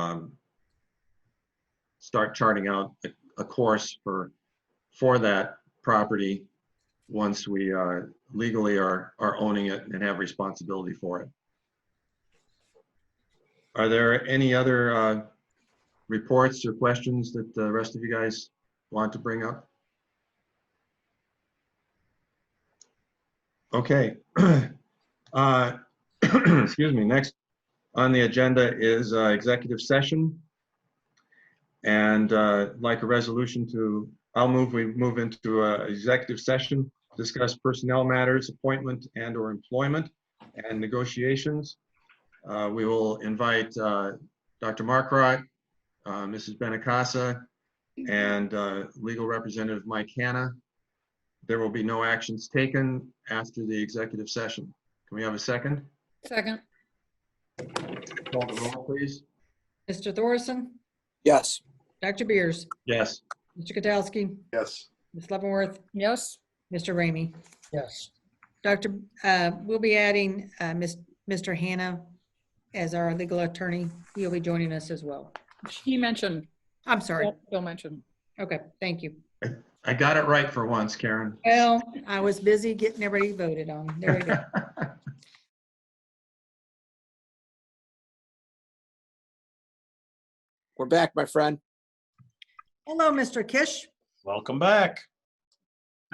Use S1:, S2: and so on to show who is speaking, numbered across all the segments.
S1: um, start charting out a, a course for, for that property once we uh, legally are, are owning it and have responsibility for it. Are there any other uh, reports or questions that the rest of you guys want to bring up? Okay. Uh, Excuse me. Next on the agenda is uh, executive session. And uh, like a resolution to, I'll move, we move into uh, executive session, discuss personnel matters, appointment and/or employment and negotiations. Uh, We will invite uh, Dr. Markrot, uh, Mrs. Benacasa, and uh, legal representative Mike Hanna. There will be no actions taken after the executive session. Can we have a second?
S2: Second,
S1: Call the roll, please.
S2: Mr. Thorson,
S3: Yes.
S2: Dr. Beers,
S1: Yes.
S2: Mr. Katsowski,
S3: Yes.
S2: Ms. Leavenworth,
S4: Yes,
S2: Mr. Ramey.
S3: Yes.
S2: Dr., uh, we'll be adding uh, Ms. Mr. Hannah as our legal attorney. He'll be joining us as well.
S4: she mentioned,
S2: I'm sorry.
S4: Bill mentioned.
S2: Okay, thank you.
S1: I got it right for once, Karen.
S2: Well, I was busy getting everybody voted on. There we go.
S3: We're back, my friend.
S2: Hello, Mr. Kish.
S5: Welcome back.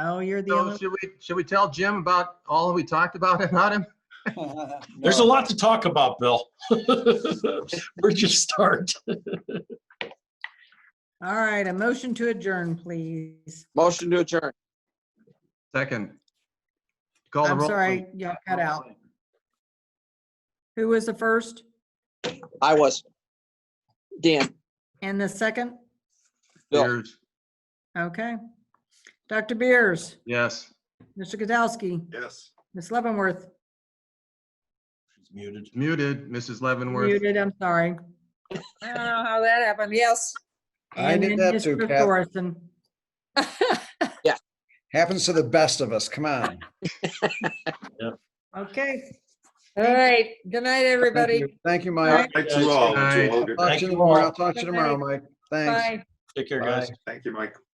S2: Oh, you're the
S1: So
S2: only,
S1: should we, should we tell Jim about all we talked about about him?
S5: There's a lot to talk about, Bill. Where'd you start?
S2: all right, a motion to adjourn, please.
S3: Motion to adjourn.
S1: Second. Call the
S2: I'm
S1: roll.
S2: sorry, y'all cut out. Who was the first
S3: I was. Dan,
S2: and the second?
S3: Bill.
S1: Beers.
S2: Okay. Dr. Beers,
S1: Yes.
S2: Mr. Katsowski,
S5: Yes.
S2: Ms. Leavenworth,
S5: She's muted.
S1: Muted, Mrs. Leavenworth.
S2: muted, I'm sorry.
S4: I don't know how that happened. Yes.
S6: I
S2: And
S6: did
S2: then
S6: that too,
S2: Mr.
S6: Kath.
S2: Thorson.
S6: Happens to the best of us. Come on.
S2: Okay,
S4: All right. Good night, everybody.
S6: Thank you,
S2: All right.
S6: Mike.
S7: Thanks to all.
S1: Aye.
S7: To all. Good
S6: Talk
S5: Thank
S6: to you
S5: you
S6: tomorrow.
S5: all.
S6: Talk to you
S2: Good
S6: tomorrow,
S2: night.
S6: Mike. Thanks.
S2: bye.
S5: Take care,
S6: Bye.
S5: guys.
S7: Thank you, Mike.